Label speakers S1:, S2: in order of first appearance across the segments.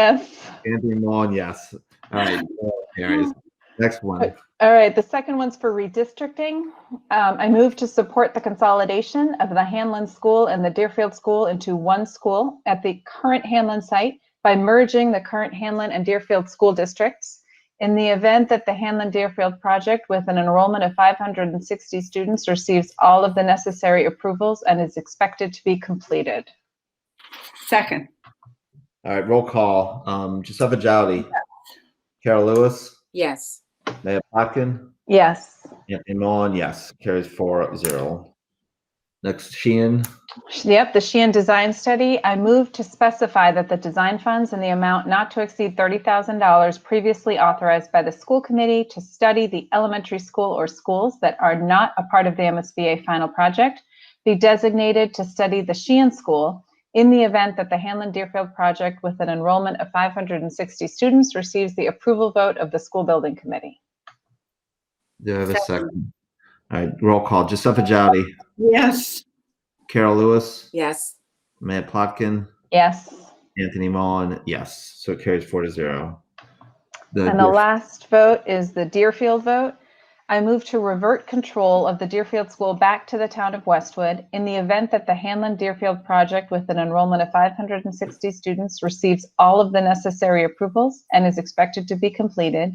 S1: Yes.
S2: Anthony Mullen, yes. All right, so carries. Next one.
S1: All right, the second one's for redistricting. Um, I move to support the consolidation of the Hanlon School and the Deerfield School into one school at the current Hanlon site by merging the current Hanlon and Deerfield school districts. In the event that the Hanlon Deerfield project with an enrollment of 560 students receives all of the necessary approvals and is expected to be completed.
S3: Second,
S2: All right, roll call. Um, Giuseppe Jowdy, Carol Lewis,
S4: yes,
S2: Mayor Plotkin,
S1: Yes.
S2: Anthony Mullen, yes. Carries four zero. Next, Sheehan.
S1: Yep, the Sheehan Design Study. I move to specify that the design funds in the amount not to exceed $30,000 previously authorized by the school committee to study the elementary school or schools that are not a part of the MSBA final project be designated to study the Sheehan School in the event that the Hanlon Deerfield project with an enrollment of 560 students receives the approval vote of the school building committee.
S2: Do I have a
S4: Second.
S2: second? All right, roll call. Giuseppe Jowdy,
S3: yes,
S2: Carol Lewis,
S4: yes,
S2: Mayor Plotkin,
S1: Yes.
S2: Anthony Mullen, yes. So it carries four to zero.
S1: And the last vote is the Deerfield vote. I move to revert control of the Deerfield School back to the town of Westwood in the event that the Hanlon Deerfield project with an enrollment of 560 students receives all of the necessary approvals and is expected to be completed.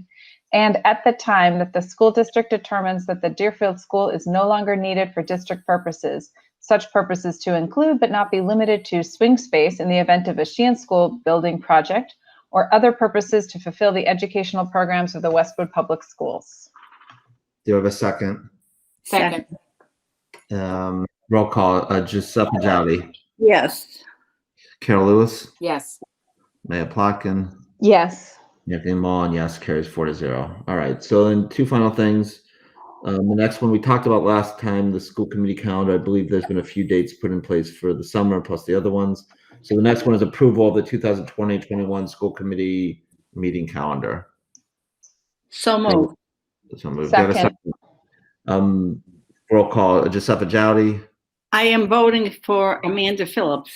S1: And at the time that the school district determines that the Deerfield School is no longer needed for district purposes, such purposes to include but not be limited to swing space in the event of a Sheehan School building project or other purposes to fulfill the educational programs of the Westwood Public Schools.
S2: Do I have a second?
S4: second,
S2: Um, roll call. Uh, Giuseppe Jowdy,
S3: yes,
S2: Carol Lewis,
S4: yes,
S2: Mayor Plotkin,
S1: Yes.
S2: Anthony Mullen, yes, carries four to zero. All right, so then two final things. Um, the next one we talked about last time, the school committee calendar. I believe there's been a few dates put in place for the summer plus the other ones. So the next one is approval of the 2020-21 school committee meeting calendar.
S3: so moved,
S2: So we've got a
S1: Second.
S2: second. Um, roll call, Giuseppe Jowdy.
S3: I am voting for Amanda Phillips.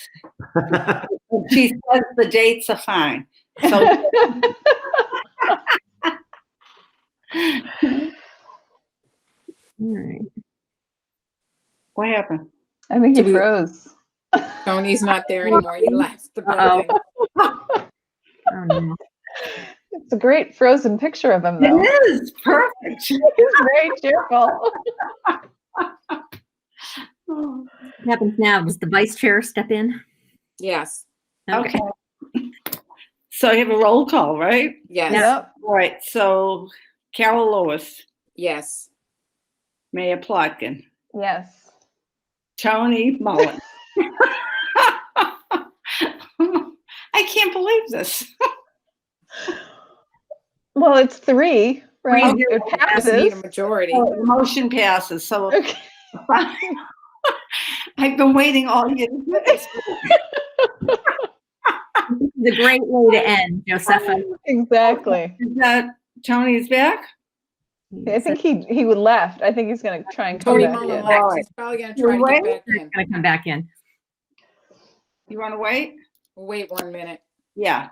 S3: She says the dates are fine. So, what happened?
S1: I think you
S4: Do we-
S1: froze.
S4: Tony's not there anymore, he left the
S5: Oh.
S4: building.
S1: It's a great frozen picture of him, though.
S3: It is perfect.
S1: He's very cheerful.
S5: What happens now? Does the vice chair step in?
S4: Yes,
S3: Okay. So you have a roll call, right?
S4: yes,
S1: Yep.
S3: All right, so Carol Lewis,
S4: yes,
S3: Mayor Plotkin,
S1: Yes.
S3: Tony Mullen. I can't believe this.
S1: Well, it's three, right?
S3: Three,
S1: It
S4: just need a
S1: passes.
S4: majority.
S3: Oh, the Motion passes, so
S1: Okay.
S3: I've been waiting all year. to do this.
S5: The great way to end, Josepha.
S1: Exactly.
S3: Is that Tony's back?
S1: I think he he would left. I think he's going to try and come
S4: Tony
S1: back
S4: Mullen
S1: in.
S4: left, he's probably gonna try to get back in.
S5: Gonna come back in.
S3: You want to wait?
S4: Wait one minute,
S3: Yeah.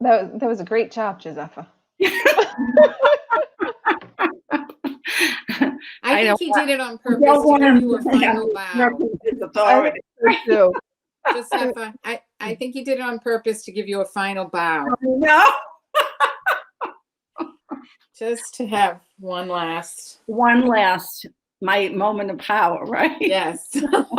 S1: That was, that was a great job, Josepha.
S3: I
S4: I
S3: don't
S4: think he did it on
S3: don't
S4: purpose to
S3: want
S4: give
S3: him
S4: you a
S3: to have
S4: final bow.
S3: His authority.
S1: So,
S4: Just have fun. I, I think he did it on purpose to give you a final bow,
S3: No,
S4: just to have one last,
S3: one last, my moment of power, right?
S4: yes.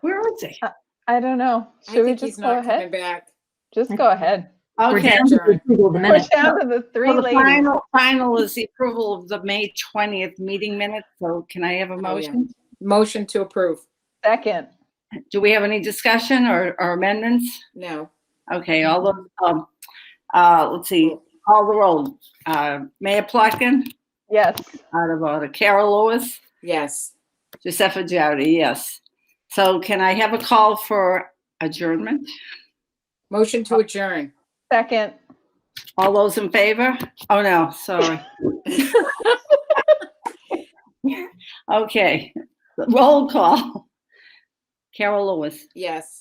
S3: Where is he?
S1: I don't know.
S4: I
S1: Should we
S4: think he's
S1: just go
S4: not coming
S1: ahead?
S4: back.
S1: Just go ahead.
S5: We're
S3: Okay.
S5: down to the approval of the
S1: We're
S5: minutes.
S1: down to the three
S3: So the
S1: ladies.
S3: final, final is the approval of the May 20th meeting minutes. So can I have a
S4: Oh, yeah.
S3: motion?
S4: Motion to approve,
S1: Second.
S3: Do we have any discussion or or amendments?
S4: no,
S3: Okay, all the, um, uh, let's see, all the roll. Uh, Mayor Plotkin,
S1: Yes.
S3: out of order. Carol Lewis,
S4: yes.
S3: Josepha Jowdy, yes. So can I have a call for adjournment?
S4: Motion to adjourn.
S1: Second.
S3: All those in favor? Oh, no, sorry. Okay, roll call.
S6: Carol Lewis,
S3: Yes.